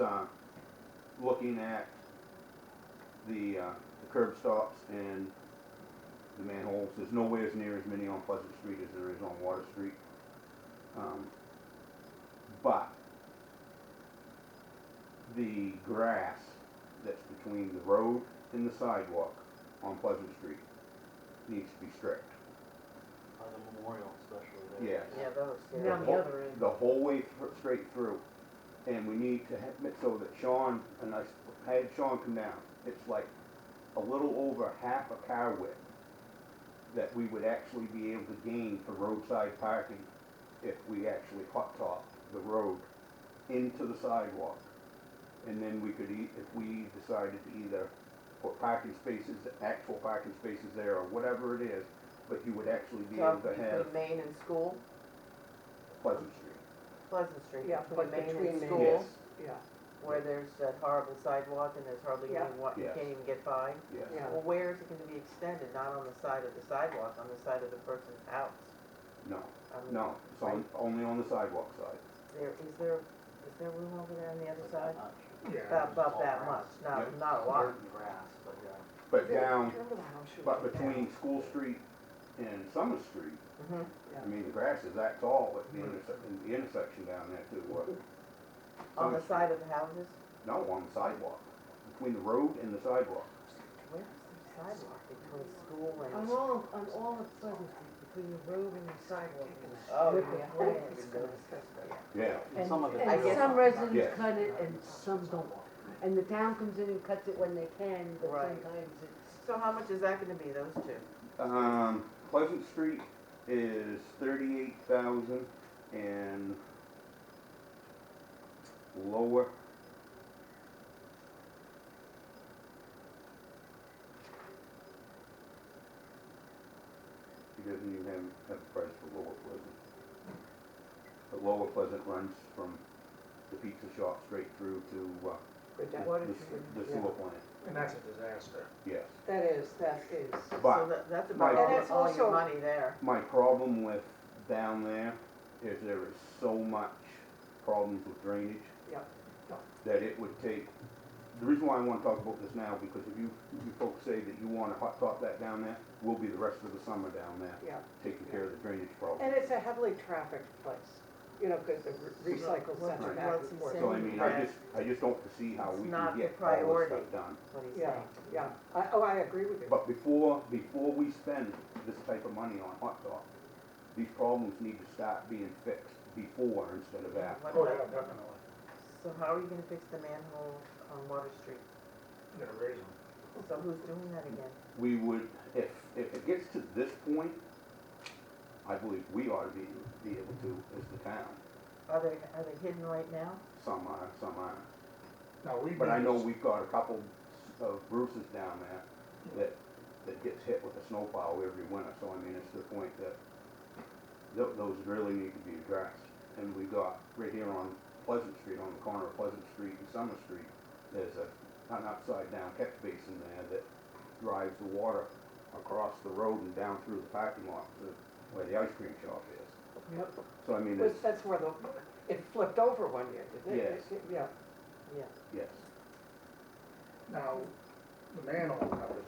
uh, looking at the, uh, the curb stops and the manholes. There's nowhere as near as many on Pleasant Street as there is on Water Street. Um, But the grass that's between the road and the sidewalk on Pleasant Street needs to be stripped. On the memorial especially Yes. there. Yeah, those, The yeah. Down the whole- other end. The whole way thr- straight through. And we need to have it so that Sean, and I s- had Sean come down, it's like a little over half a car width that we would actually be able to gain for roadside parking if we actually hot top the road into the sidewalk. And then we could, e- if we decided to either put parking spaces, actual parking spaces there or whatever it is, but you would actually be So able to have between Main and school, Pleasant Street. Pleasant Street, Yeah, between but Main between and Main- school, Yeah, where there's that horrible sidewalk and there's hardly Yeah. any, wa- you Yes. can't even get by. Yes, Yeah. Well, where is it gonna be extended? Not on the side of the sidewalk, on the side of the person's house. no, I mean, no, it's on, only on the sidewalk side. There, is there, is there room over there on the other But side? not much. Yeah, About, about that much, Yeah. not, not a Dirt lot. and grass, but yeah. But down, Remember the house you but were in? between School Street and Summer Street, Mhm. I mean, the grass is that tall at the intersection, the intersection down there too, what? On Summer the Street- side of the houses? No, on the sidewalk, between the road and the sidewalk. Where is the sidewalk between school On and? all, on all of Pleasant Street, between the road and the sidewalk. Oh, With the yeah. grass. It's gonna be disgusting. Yeah. And And, some of it I and guess- some residents Yes. cut it and some don't. And the town comes in and cuts it when they can, but Right. sometimes it's, So how much is that gonna be, those two? Um, Pleasant Street is thirty-eight thousand and lower. She doesn't even have, have a price for Lower Pleasant. But Lower Pleasant runs from the pizza shop straight through to, uh, Water the, treatment. the sewer plant, and that's a disaster. yes. That is, that is. But- So that, that's Right. about all, And it's all your also- money there. My problem with down there is there is so much problems with drainage. Yep. That it would take, the reason why I wanna talk about this now, because if you, if you folks say that you wanna hot top that down there, we'll be the rest of the summer down there. Yeah. Taking care of the drainage problem. And it's a heavily trafficked place, you know, because the re- recycle Well, center right. back What's he and forth. saying? So I mean, I just, I just don't see how It's we not can the get all this priority. stuff done. That's what he's Yeah, saying. yeah, I, oh, I agree with you. But before, before we spend this type of money on hot top, these problems need to start being fixed before instead of after. What Oh, yeah, about- uh, definitely. So how are you gonna fix the manhole on Water Street? I'm gonna raise them. So who's doing that again? we would, if, if it gets to this point, I believe we ought to be, be able to as the town. Are they, are they hidden right now? Some are, some aren't. Now, we've But I know been, we've got a couple of Bruce's down there that, that gets hit with a snowplow every winter, so I mean, it's to the point that tho- those really need to be addressed. And we got, right here on Pleasant Street, on the corner of Pleasant Street and Summer Street, there's a, an upside down catch basin there that drives the water across the road and down through the parking lot to where the ice cream shop is. Yep. So I mean, Which, there's, that's where the, it flipped over one year, didn't it? Yes. Yeah, Yeah. yes, now, the manhole covers,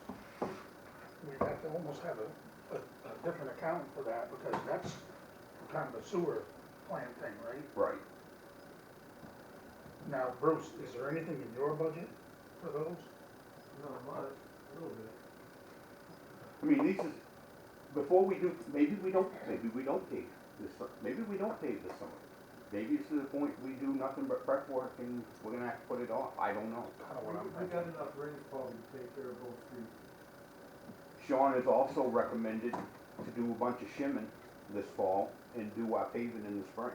we'd have to almost have a, a, a different account for that, because that's kind of a sewer plant thing, right? right. Now, Bruce, is there anything in your budget for those? I mean, these is, before we do, maybe we don't, maybe we don't pave this, su- maybe we don't pave this summer. Maybe it's to the point we do nothing but prep work and we're gonna have to put it off, I don't know. Kind of We what I'm we thinking. got enough rainfall to take care of both streets. Sean has also recommended to do a bunch of shimming this fall and do our paving in the spring.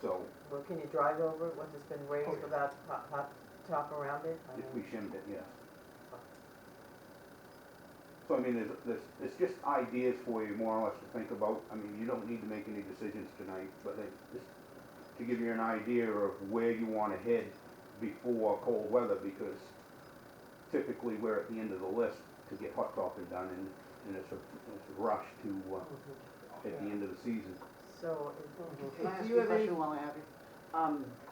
So, Well, can you drive over it once it's been Oh, raised yeah. without hot, hot top around it? I if we mean, shimmed it, yes. So I mean, there's, there's, it's just ideas for you more or less to think about. I mean, you don't need to make any decisions tonight, but it, just to give you an idea of where you wanna head before cold weather, because typically we're at the end of the list to get hot topping done, and, and it's a, it's a rush to, uh, at the end of the season. So, Can I if- if ask you you a have any, question while I have you? Um,